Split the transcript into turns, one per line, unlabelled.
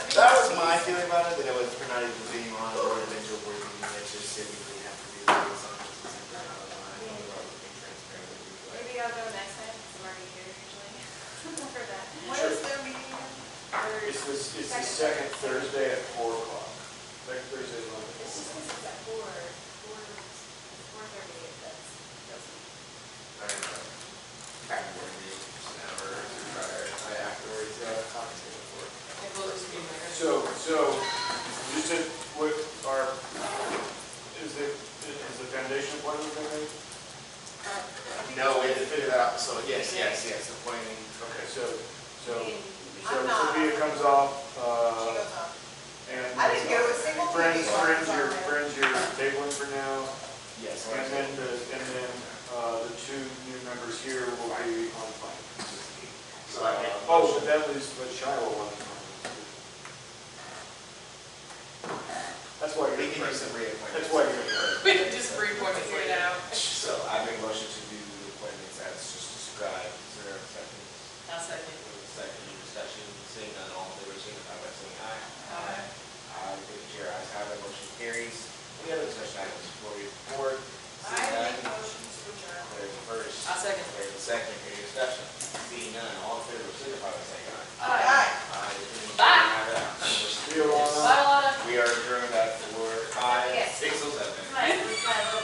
not even being on or individual board meeting, that just typically have to be like something separate out of line, otherwise we can transparent with you. but-
Maybe I'll go next time, because I'm already here usually. For that.
What is their meeting? Their-
It's the, it's the second Thursday at four o'clock. Second Thursday at eleven.
It's just because it's at four, four, four thirty, it does, doesn't.
Back to work meeting, just an hour or two prior, I afterwards, uh, talked to the board.
It will just be like.
So, so, just to, what are, is it, is the foundation appointment been made?
No, we had to figure that out, so yes, yes, yes, appointing.
Okay, so, so,
I mean,
so
I'm not.
Sophia comes off,
She
uh,
goes on.
and.
I didn't go to a single
Friends,
meeting while I
friends,
was
your,
on there.
friends, your tabling for now,
Yes.
and then the, and then, uh, the two new members here will be on fine.
So I make. a
Oh,
motion.
but that was, but Shiloh wanted to. That's why
We
you're.
can do some reappointments.
That's why you're.
We can just reappoint it right now.
oh